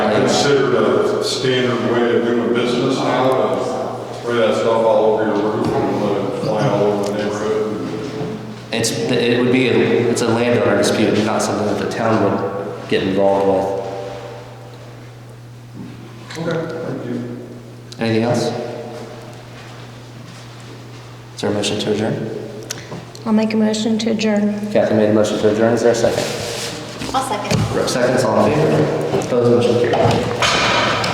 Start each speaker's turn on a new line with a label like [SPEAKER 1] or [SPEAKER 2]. [SPEAKER 1] a standard way of doing business now, to spray that stuff all over your roof and let it fly all over the neighborhood.
[SPEAKER 2] It's, it would be, a- it's a landowner dispute, not something that the town would get involved
[SPEAKER 1] Okay, thank you.
[SPEAKER 2] with. Anything else? Is there a motion to adjourn?
[SPEAKER 3] I'll make a motion to adjourn.
[SPEAKER 2] Kathy made a motion to adjourn, is there a second?
[SPEAKER 4] I'll second.
[SPEAKER 2] Second, all in favor? Opposed, motion carried.